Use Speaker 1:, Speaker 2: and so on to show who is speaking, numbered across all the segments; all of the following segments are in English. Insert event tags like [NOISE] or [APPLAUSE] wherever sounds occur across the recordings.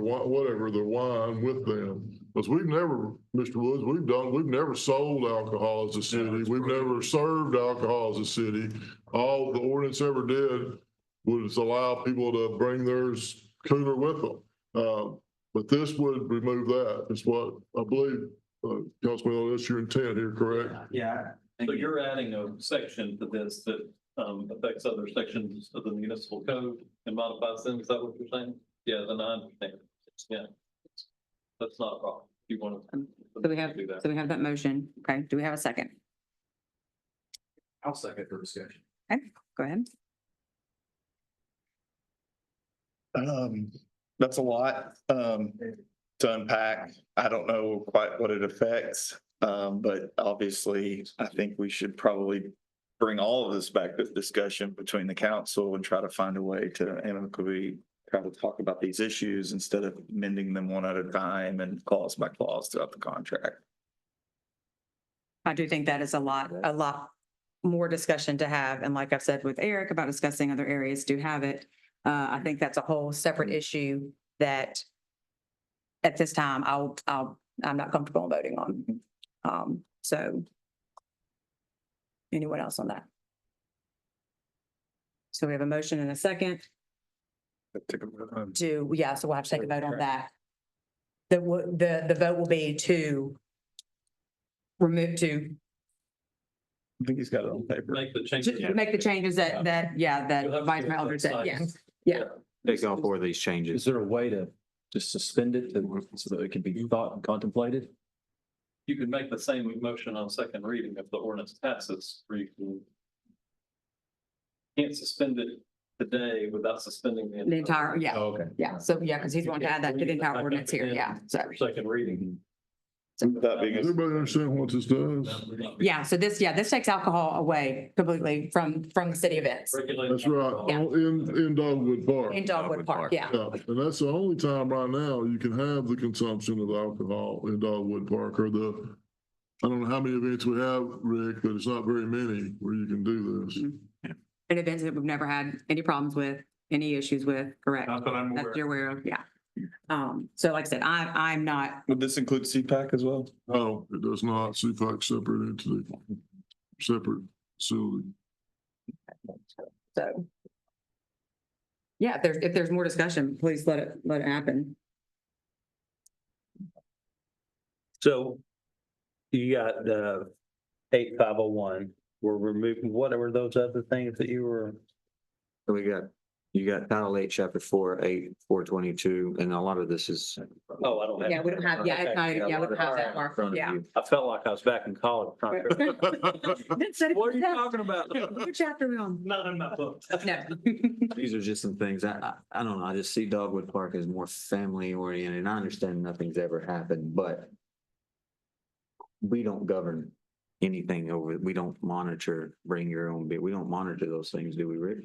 Speaker 1: wha- whatever, the wine with them. Because we've never, Mr. Woods, we've done, we've never sold alcohol as a city. We've never served alcohol as a city. All the ordinance ever did was allow people to bring theirs cooler with them. Uh, but this would remove that. It's what I believe, uh, Councilman, Elliott, that's your intent here, correct?
Speaker 2: Yeah.
Speaker 3: So you're adding a section to this that um affects other sections of the municipal code and modifies them, is that what you're saying? Yeah, then I understand, yeah. That's not a problem, you want to.
Speaker 4: Um, So we have,
Speaker 3: Do that.
Speaker 4: so we have that motion. Okay, do we have a second?
Speaker 2: I'll second for discussion.
Speaker 4: Go ahead.
Speaker 5: Um, that's a lot, um, to unpack. I don't know quite what it affects. Um, but obviously, I think we should probably bring all of this back to discussion between the council and try to find a way to amicably try to talk about these issues instead of mending them one at a time and clause by clause throughout the contract.
Speaker 4: I do think that is a lot, a lot more discussion to have. And like I've said with Eric about discussing other areas, do have it. Uh, I think that's a whole separate issue that at this time, I'll, I'll, I'm not comfortable voting on. Um, so anyone else on that? So we have a motion and a second. To, yeah, so we'll have to take a vote on that. The, wo- the, the vote will be to remove, to
Speaker 5: I think he's got it on paper.
Speaker 3: Make the changes.
Speaker 4: to make the changes that, that, yeah,
Speaker 3: You'll have
Speaker 4: that
Speaker 3: to
Speaker 4: Vice
Speaker 3: do
Speaker 4: Mayor
Speaker 3: it
Speaker 4: Eldridge said,
Speaker 3: outside.
Speaker 4: yes.
Speaker 6: Take all four of these changes.
Speaker 2: Is there a way to just suspend it to- so that it can be thought and contemplated?
Speaker 3: You can make the same motion on second reading if the ordinance passes, or you can. Can't suspend it today without suspending the.
Speaker 4: The entire, yeah,
Speaker 2: Oh, Okay.
Speaker 4: yeah, so, yeah, because he's going to add that to the entire ordinance here, yeah, so,
Speaker 3: For Second reading.
Speaker 5: That being,
Speaker 1: Does
Speaker 5: a-
Speaker 1: Everybody understand what this does?
Speaker 4: yeah, so this, yeah, this takes alcohol away completely from, from the city events
Speaker 3: Regulate.
Speaker 1: That's right,
Speaker 4: Yeah.
Speaker 1: all in, in Dogwood Park.
Speaker 4: in Dogwood Park, yeah.
Speaker 1: Yeah, and that's the only time right now you can have the consumption of alcohol in Dogwood Park or the, I don't know how many events we have, Rick, but it's not very many where you can do this.
Speaker 4: And events that we've never had any problems with, any issues with, correct?
Speaker 7: Not that I'm
Speaker 4: That
Speaker 7: aware.
Speaker 4: you're aware of, yeah. Um, so like I said, I, I'm not,
Speaker 5: would this include CPAC as well?
Speaker 1: No, it does not. CPAC separate entity, separate facility. [LAUGHS]
Speaker 4: so. Yeah, if there's, if there's more discussion, please let it, let it happen.
Speaker 8: So you got the eight five oh one, we're removing, what were those other things that you were?
Speaker 6: So we got, you got Title Eight, Chapter Four, Eight, Four Twenty-two, and a lot of this is.
Speaker 8: Oh, I don't have.
Speaker 4: Yeah, we don't have, yeah, it's not- yeah, we don't have that
Speaker 6: in
Speaker 4: far,
Speaker 6: front of
Speaker 4: yeah.
Speaker 6: you.
Speaker 8: I felt like I was back in college. trying to-
Speaker 4: [LAUGHS] What
Speaker 8: What are you talking about?
Speaker 4: What chapter are we on?
Speaker 3: Not in my book.
Speaker 4: No.
Speaker 6: These are just some things. I, I, I don't know. I just see Dogwood Park as more family oriented. and I understand nothing's ever happened, but we don't govern anything over, we don't monitor, bring your own beer. We don't monitor those things, do we, Rick?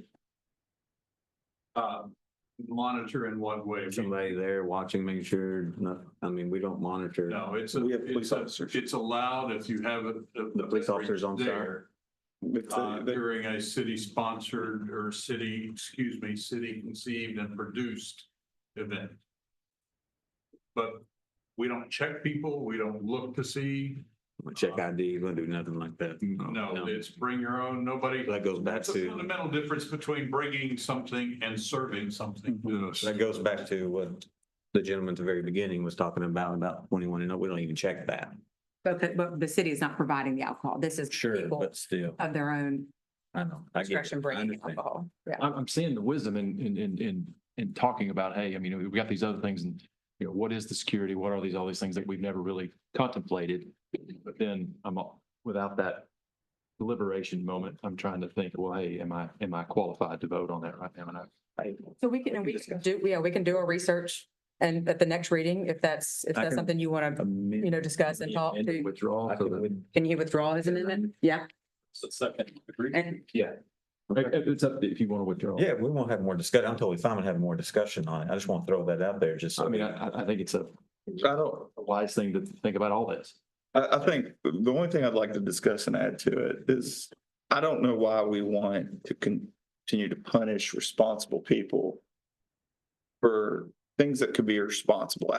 Speaker 7: Uh, monitor in what way?
Speaker 6: Somebody there watching, making sure, no, I mean, we don't monitor.
Speaker 7: No, it's
Speaker 5: We
Speaker 7: a,
Speaker 5: have police
Speaker 7: it's a,
Speaker 5: officers.
Speaker 7: it's allowed if you have a.
Speaker 6: The police officers on site.
Speaker 7: there,
Speaker 5: If they-
Speaker 7: uh,
Speaker 5: they-
Speaker 7: During a city sponsored or city, excuse me, city conceived and produced event. But we don't check people, we don't look to see,
Speaker 6: We Check ID, we don't do nothing like that.
Speaker 7: no, it's bring your own, nobody.
Speaker 6: That goes back
Speaker 7: That's a
Speaker 6: to,
Speaker 7: fundamental difference between bringing something and serving something.
Speaker 1: Yes.
Speaker 6: that goes back to what the gentleman at the very beginning was talking about, about twenty-one and up. We don't even check that.
Speaker 4: But, the- but the city is not providing the alcohol. This is
Speaker 6: Sure,
Speaker 4: people
Speaker 6: but still,
Speaker 4: of their own
Speaker 6: I know. I get it.
Speaker 4: discretion
Speaker 6: I
Speaker 4: bringing
Speaker 6: understand.
Speaker 4: alcohol. Yeah.
Speaker 2: I'm, I'm seeing the wisdom in, in, in, in, in talking about, hey, I mean, we've got these other things and, you know, what is the security? What are these, all these things that we've never really contemplated? But then I'm, all- without that deliberation moment, I'm trying to think, well, hey, am I, am I qualified to vote on that right now? And I,
Speaker 4: So we can, and we can do, yeah, we can do our research and at the next reading, if that's, if
Speaker 6: I
Speaker 4: that's
Speaker 6: can-
Speaker 4: something you want to, you know, discuss and talk to.
Speaker 2: Withdrawal.
Speaker 6: I could- would-
Speaker 4: Can he withdraw his amendment? Yeah,
Speaker 3: It's the second degree.
Speaker 4: and
Speaker 2: It's up to- if you want to withdraw.
Speaker 6: Yeah, we won't have more discussion. I'm totally fine with having more discussion on it. I just want to throw that out there, just. so-
Speaker 2: I mean, I, I- I think it's a
Speaker 5: I don't,
Speaker 2: a wise thing to think about all this.
Speaker 5: I, I think the only thing I'd like to discuss and add to it is, I don't know why we want to continue to punish responsible people for things that could be responsible